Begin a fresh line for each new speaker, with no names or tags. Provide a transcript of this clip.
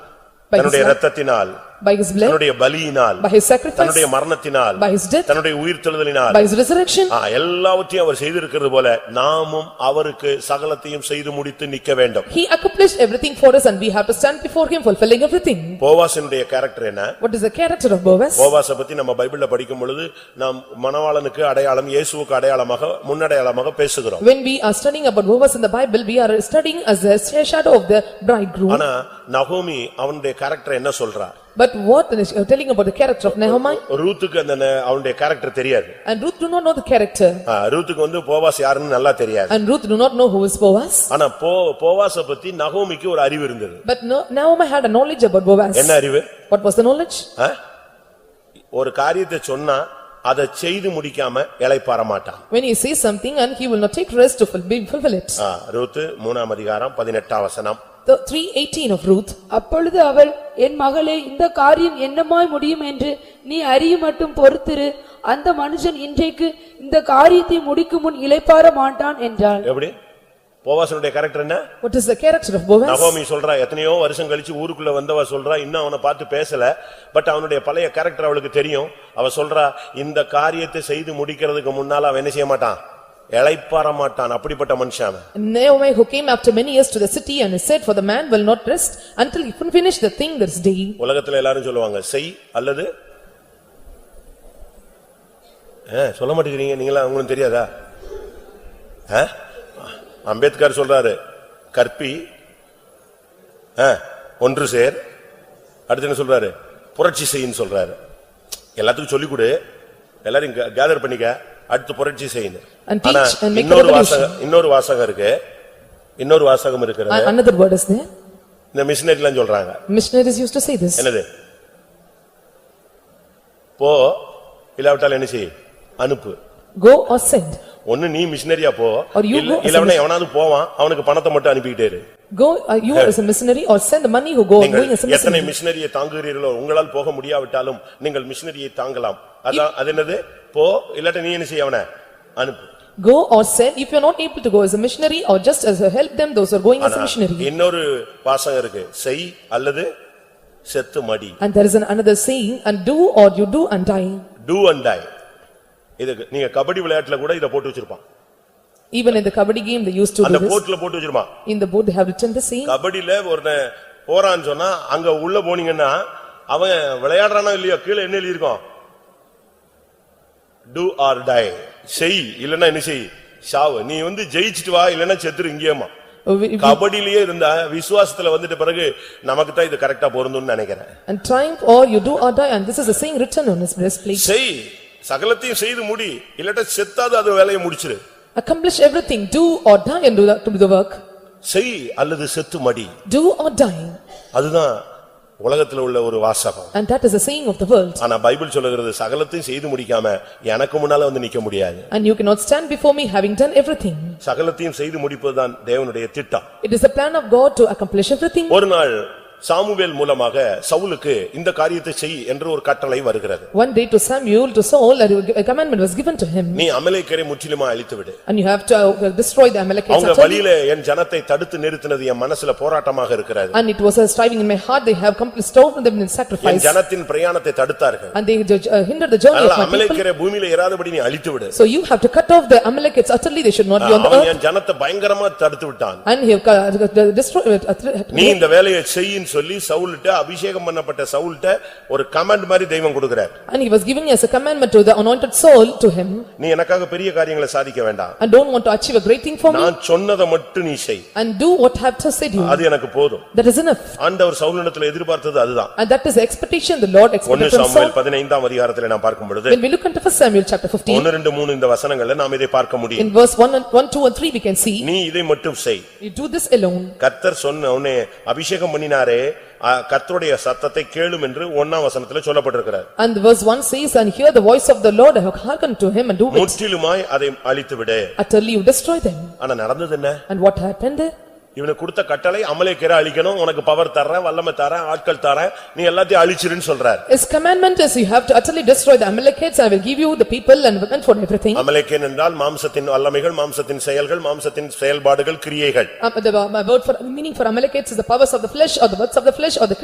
By his
தன்னுடைய
life.
ரத்தத்தினால்
by his blood,
தன்னுடைய பலியினால்
by his sacrifice,
தன்னுடைய மரணத்தினால்
by his death,
தன்னுடைய உயிர்த்தெழுதலினால்
by his resurrection,
ஆ, எல்லாவற்றையும் அவர் செய்திருக்கிறது போல நாமும் அவருக்கு சகலத்தையும் செய்து முடித்து நிக்க வேண்டும்
he accomplished everything for us and we have to stand before him fulfilling everything.
போவாசனுடைய கேரக்டர் என்ன
What is the character of Boaz?
போவாச பத்தி நம்ம பைபிள்ல படிக்கும் பொழுது நாம் மணவாளனுக்கு அடையாளம் இயேசுவுக்கு அடையாளமாக முன்னடையாளமாக பேசுகிறோம்
When we are studying about Boaz in the Bible, we are studying as a shadow of the bridegroom.
ஆனா நகோமி அவனுடைய கேரக்டர் என்ன சொல்றா
But what is uh, telling about the character of Nehemiah?
ரூத்துக்கு அந்த ந- அவனுடைய கேரக்டர் தெரியாது
And Ruth do not know the character.
ஆ, ரூத்துக்கு வந்து போவாஸ் யாருன்னு நல்லா தெரியாது
And Ruth do not know who is Boaz.
ஆனா போ போவாச பத்தி நகோமிக்கு ஒரு அறிவு இருந்தது
But no- Naomi had a knowledge about Boaz.
என்ன அறிவு
What was the knowledge?
ஆ? ஒரு காரியத்தை சொன்னா அதை செய்து முடிக்காம இளைப்பாற மாட்டான்
When he says something and he will not take rest to fulfill fulfill it.
ஆ, ரூத்து மூணாம் அதிகாரம் பதினெட்டாம் வசனம்
The 3:18 of Ruth.
அப்பொழுது அவள் என் மகளே இந்த காரியம் என்னமாய் முடியும் என்று நீ அறிய மட்டும் பொறுத்திரு அந்த மனுஷன் இன்றைக்கு இந்த காரியத்தை முடிக்கும் முன் இளைப்பாற மாட்டான் என்றாள்
எப்படி போவாசனுடைய கேரக்டர் என்ன
What is the character of Boaz?
நகோமி சொல்றா எத்தனையோ வருஷம் கழிச்சு ஊருக்குள்ள வந்தவ சொல்றா இன்னும் அவனை பார்த்து பேசல பட் அவனுடைய பழைய கேரக்டர் அவளுக்கு தெரியும் அவ சொல்றா இந்த காரியத்தை செய்து முடிக்கிறதுக்கு முன்னால அவன் என்ன செய்ய மாட்டான் இளைப்பாற மாட்டான் அப்படிப்பட்ட மனுஷன் அவன்.
Naomi who came after many years to the city and said for the man will not rest until he finish the thing this day.
உலகத்துல எல்லாரும் சொல்லுவாங்க செய் அல்லது ஆ, சொல்ல மாட்டேங்கிறீங்க நீங்களா உங்களுக்கு தெரியாதா ஆ? அம்பேத்கர் சொல்றாரு கற்பி ஆ, ஒன்று சேர் அடுத்து என்ன சொல்றாரு புரட்சி செய்யின்னு சொல்றாரு எல்லாத்துக்கும் சொல்லிக் கொடு எல்லாரும் கேதர் பண்ணிக்க அடுத்து புரட்சி செய்யுன்னு
And teach
ஆனா
and make a
இன்னொரு
revolution.
வாசகம் இன்னொரு வாசகம் இருக்கு இன்னொரு வாசகம் இருக்கிறது
And Another word is there.
இந்த மிஷினரிலாம் சொல்றாங்க
Missionaries used to say this.
என்னது? போ, இல்லாவிட்டால் என்ன செய்? அனுப்பு.
Go or send.
ஒன்னு நீ மிஷனரியா போ.
Or you
இல்ல-
go as a
இல்லவனா எவனாவது போவான், அவனுக்கு பணத்தை மட்டும் அனுப்பிட்டே இரு.
Go, uh, you as a missionary or send the money who go
நீங்கள்
going as a
எத்தனை
missionary.
மிஷனரியை தாங்குகிறீர்களோ, உங்களால் போக முடியாவிட்டாலும் நீங்கள் மிஷனரியை தாங்கலாம். அதான் அது என்னது? போ, இல்லாட்ட நீ என்ன செய்ய அவன? அனுப்பு.
Go or send, if you are not able to go as a missionary or just as a help them, those who are going as a missionary.
இன்னொரு வாசகம் இருக்கு. செய் அல்லது செத்து மடி.
And there is an another saying, and do or you do and die.
Do and die. இதுக்கு நீங்க கபடி விளையாட்டுல கூட இத போட்டு வச்சிருப்பான்.
Even in the kabaddi game, they used to do
அந்த
this.
போட்ல போட்டு வச்சிருப்பான்.
In the board, they have written the saying.
கபடியில ஒருத்தன் போறான்னு சொன்னா அங்க உள்ள போனீங்கன்னா அவன் விளையாடுறானோ இல்லையோ கீழே என்ன எழுதியிருக்கோம் டூ ஆர் டை செய் இல்லன்னா என்ன செய் சாவு நீ வந்து ஜெயிச்சிட்டு வா இல்லன்னா செத்துரு இங்கேயேமா
Uh, we- we-
கபடியிலேயே இருந்தா விசுவாசத்துல வந்துட்ட பிறகு நமக்கு தான் இது கரெக்டா பொருந்தும்னு நினைக்கிறேன்
And triumph or you do or die, and this is a saying written on his breastplate.
செய் சகலத்தையும் செய்து முடி இல்லாட்டா செத்தாது அது வேலையை முடிச்சிரு
Accomplish everything, do or die and do the- to do the work.
செய் அல்லது செத்து மடி
Do or die,
அதுதான் உலகத்துல உள்ள ஒரு வாசகம்
and that is a saying of the world.
ஆனா பைபிள் சொல்லுகிறது சகலத்தையும் செய்து முடிக்காம எனக்கு முன்னால வந்து நிக்க முடியாது
And you cannot stand before me having done everything.
சகலத்தையும் செய்து முடிப்பதுதான் தேவனுடைய திட்டம்
It is the plan of God to accomplish everything.
ஒரு நாள் சாமுவேல் மூலமாக சவுலுக்கு இந்த காரியத்தை செய் என்று ஒரு கட்டளை வருகிறது
One day to Samuel, to Saul, a commandment was given to him.
நீ அமலேக்கரை முற்றிலுமா அழித்து விடு
And you have to uh, destroy the Amalekites
அவங்க
utterly.
வழியில என் ஜனத்தை தடுத்து நிறுத்தினது என் மனசுல போராட்டமாக இருக்கிறது
And it was a striving in my heart, they have completely stolen them in
N
sacrifice.
ஜனத்தின் பிரயாணத்தை தடுத்தார்கள்
And they judge- uh, hindered the journey
அதனால
of my people.
அமலேக்கரை பூமியில இராதபடி நீ அழித்து விடு
So you have to cut off the Amalekites utterly, they should not be on the
அவன்
earth.
என் ஜனத்தை பயங்கரமா தடுத்து விட்டான்
And he have uh, destroyed, it,
நீ
uh,
இந்த வேலையை செய்யின்னு சொல்லி சவுல்ட்ட அபிஷேகம் பண்ணப்பட்ட சவுல்ட்ட ஒரு கமெண்ட் மாதிரி தெய்வம் கொடுக்கிறார்
and he was giving as a commandment to the anointed Saul to him.
நீ எனக்காக பெரிய காரியங்களை சாதிக்க வேண்டாம்
And don't want to achieve a great thing for me,
நான் சொன்னதை மட்டும் நீ செய்
and do what I have to said you.
அது எனக்கு போதும்
That is enough.
ஆண்டவர் சவுலினத்துல எதிர்பார்த்தது அதுதான்
And that is the expectation the Lord
ஒன்னு
expected from
சாமுவேல்
Saul.
பதினைந்தாம் அதிகாரத்துல நான் பார்க்கும் பொழுது
When we look into first Samuel chapter fifteen,
ஒன்னு ரெண்டு மூணு இந்த வசனங்கள்ல நாம் இதை பார்க்க முடியும்
in verse one and, one, two and three, we can see,
நீ இதை மட்டும் செய்
you do this alone.
கர்த்தர் சொன்ன உன்னை அபிஷேகம் பண்ணினாரே ஆ, கர்த்தருடைய சத்தத்தை கேளும் என்று ஒன்னாம் வசனத்துல சொல்லப்பட்டிருக்கிறார்
And verse one says, and hear the voice of the Lord, hearken to him and do it.
முற்றிலுமாய் அதை அழித்து விடு
Utterly you destroy them.
ஆனா நடந்தது என்ன
And what happened there?
இவனுக்கு கொடுத்த கட்டளை அமலேக்கரை அழிக்கணும் உனக்கு பவர் தரேன் வல்லமை தரேன் ஆட்கள் தரேன் நீ எல்லாத்தையும் அழிச்சிருன்னு சொல்றார்
His commandment is you have to utterly destroy the Amalekites, I will give you the people and women for everything.
அமலேக்கேன் என்றால் மாம்சத்தின் வல்லமைகள் மாம்சத்தின் செயல்கள் மாம்சத்தின் செயல்பாடுகள் கிரியைகள்
uh, Um, the- My word for, meaning for Amalekites is the powers of the flesh or the works of the flesh or the